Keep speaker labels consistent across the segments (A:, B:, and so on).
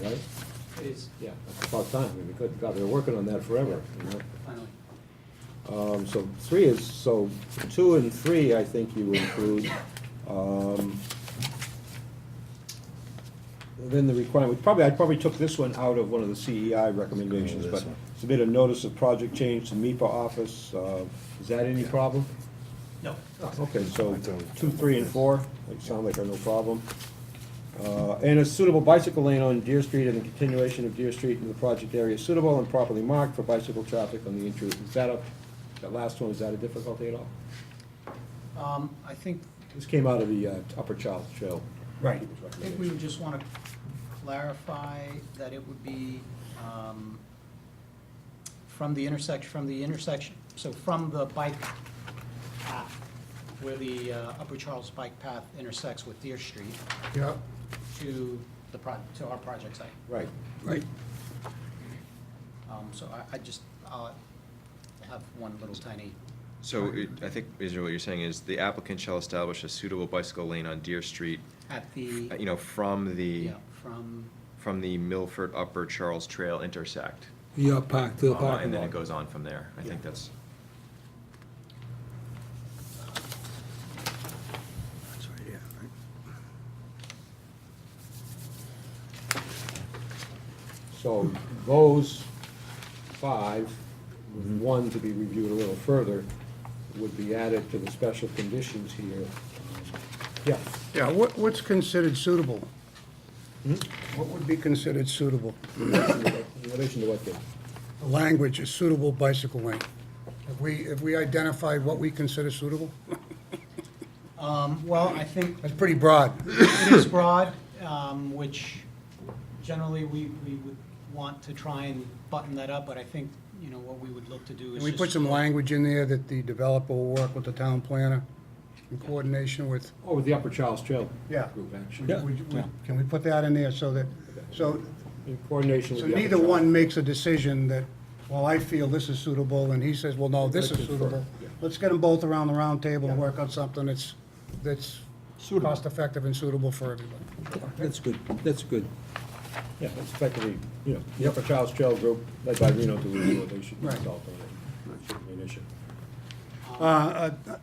A: right?
B: It is,
A: Yeah. That's about time, I mean, good God, they're working on that forever, you know?
B: finally.
A: Um, so three is, so two and three, I think you include. Um, Then the requirement, probably, I probably took this one out of one of the CEI recommendations,
C: Oh, This
A: but
C: one.
A: submit a notice of project change to MIPA office, uh, is that any problem?
B: No.
A: Oh, Okay, so
C: I don't-
A: two, three, and four, they sound like are no problem. Uh, And a suitable bicycle lane on Deer Street and the continuation of Deer Street in the project area suitable and properly marked for bicycle traffic on the intrude. Is that a, that last one, is that a difficulty at all?
B: Um, I think,
A: This came out of the uh, Upper Charles Trail.
B: Right.
A: People's
B: I think we
A: recommendation.
B: would just want to clarify that it would be um, from the intersection, from the intersection, so from the bike path, where the uh, Upper Charles Bike Path intersects with Deer Street
D: Yeah,
B: to the, pro- to our project site.
A: Right.
D: right.
B: Um, So I, I just, I'll have one little tiny,
E: So it- I think, Israel, what you're saying is the applicant shall establish a suitable bicycle lane on Deer Street,
B: at the, E.
E: uh, you know, from the,
B: yeah, from,
E: from the Milford Upper Charles Trail intersect.
D: Yeah, park to the
E: Uh,
D: parking
E: And then
D: lot.
E: it goes on from there. I
A: Yeah.
E: think that's,
D: That's right, yeah, right.
A: So those five, with one to be reviewed a little further, would be added to the special conditions here. Yeah,
D: Yeah, what, what's considered suitable? Hmm? What would be considered suitable?
A: in relation to what the,
D: The language is suitable bicycle lane. Have we, have we identified what we consider suitable?
B: um, well, I think
D: That's pretty broad.
B: It is broad, um, which generally we, we would want to try and button that up, but I think, you know, what we would look to do is
D: Can we put
B: just-
D: some language in there that the developer will work with the town planner in coordination with?
A: oh, the Upper Charles Trail
D: Yeah.
A: group action.
D: Would- would- would- Can we put that in there so that, so,
A: In coordination
D: so
A: with the. Upper
D: neither
A: Charles.
D: one makes a decision that, well, I feel this is suitable, and he says, well, no, this is suitable.
A: Yeah.
D: Let's get them both around the round table and work on something that's, that's cost-effective and suitable for everybody.
F: That's good, that's good.
A: Yeah, it's effectively, you know, the Upper Charles Trail group led by Reno to review it, they should be
D: Right.
A: involved on it. It shouldn't be an issue.
D: Uh, uh,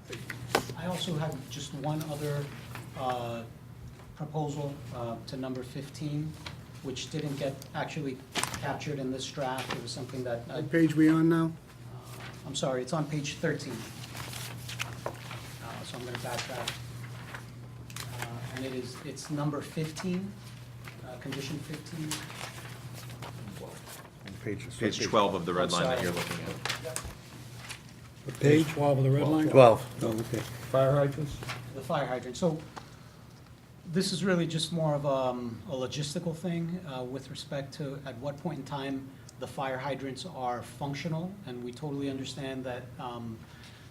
B: I also have just one other uh, proposal uh, to number 15, which didn't get actually captured in this draft. It was something that, I- uh,
D: What page we on now?
B: I'm sorry, it's on page 13. Uh, So I'm going to backtrack. Uh, And it is, it's number 15, uh, condition 15.
E: page 12 of the red line that
B: sorry.
E: you're looking at.
D: Page 12 of the red line?
F: Twelve. Oh, okay.
A: Fire hydrants?
B: the fire hydrant. So this is really just more of um, a logistical thing uh, with respect to at what point in time the fire hydrants are functional, and we totally understand that, um,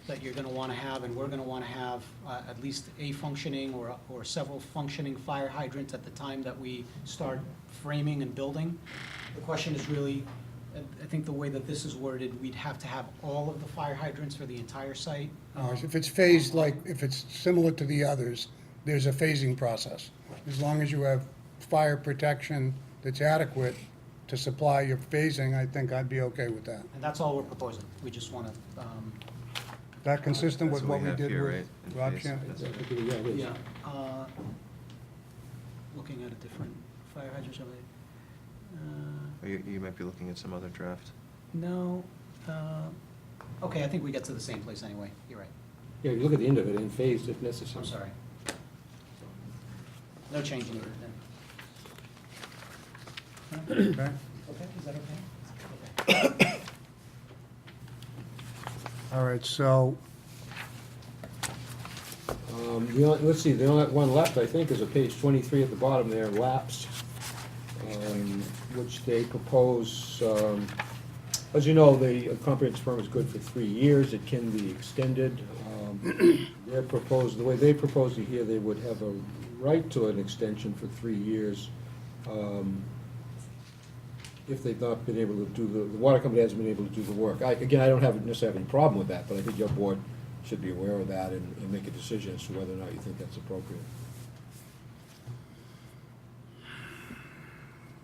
B: that you're going to want to have, and we're going to want to have uh, at least a functioning or, or several functioning fire hydrants at the time that we start framing and building. The question is really, I- I think the way that this is worded, we'd have to have all of the fire hydrants for the entire site.
D: No, Uh, If it's phased like, if it's similar to the others, there's a phasing process. As long as you have fire protection that's adequate to supply your phasing, I think I'd be okay with that.
B: And that's all we're proposing. We just want to, um,
D: Is that consistent with
E: That's what
D: what
E: we
D: we
E: have
D: did
E: here,
D: with
E: right? In
D: Rob
E: phase.
D: Shan-
A: Yeah, I think it- yeah, it is.
B: yeah, uh, looking at a different fire hydrant survey. Uh,
E: Or You, you might be looking at some other draft.
B: No, uh, okay, I think we get to the same place anyway. You're right.
A: Yeah, you look at the end of it, in phased if necessary.
B: I'm sorry. No change in it then.
D: okay?
B: Okay, is that okay? Okay.
D: All right, so,
A: Um, the only- let's see, the only one left, I think, is a page twenty-three at the bottom there, lapsed, um, which they propose, um, as you know, the comprehensive permit is good for three years, it can be extended. Um, They're proposed, the way they propose it here, they would have a right to an extension for three years, um, if they've not been able to do the, the water company hasn't been able to do the work. I, again, I don't have, necessarily have any problem with that, but I think your board should be aware of that and, and make a decision as to whether or not you think that's appropriate.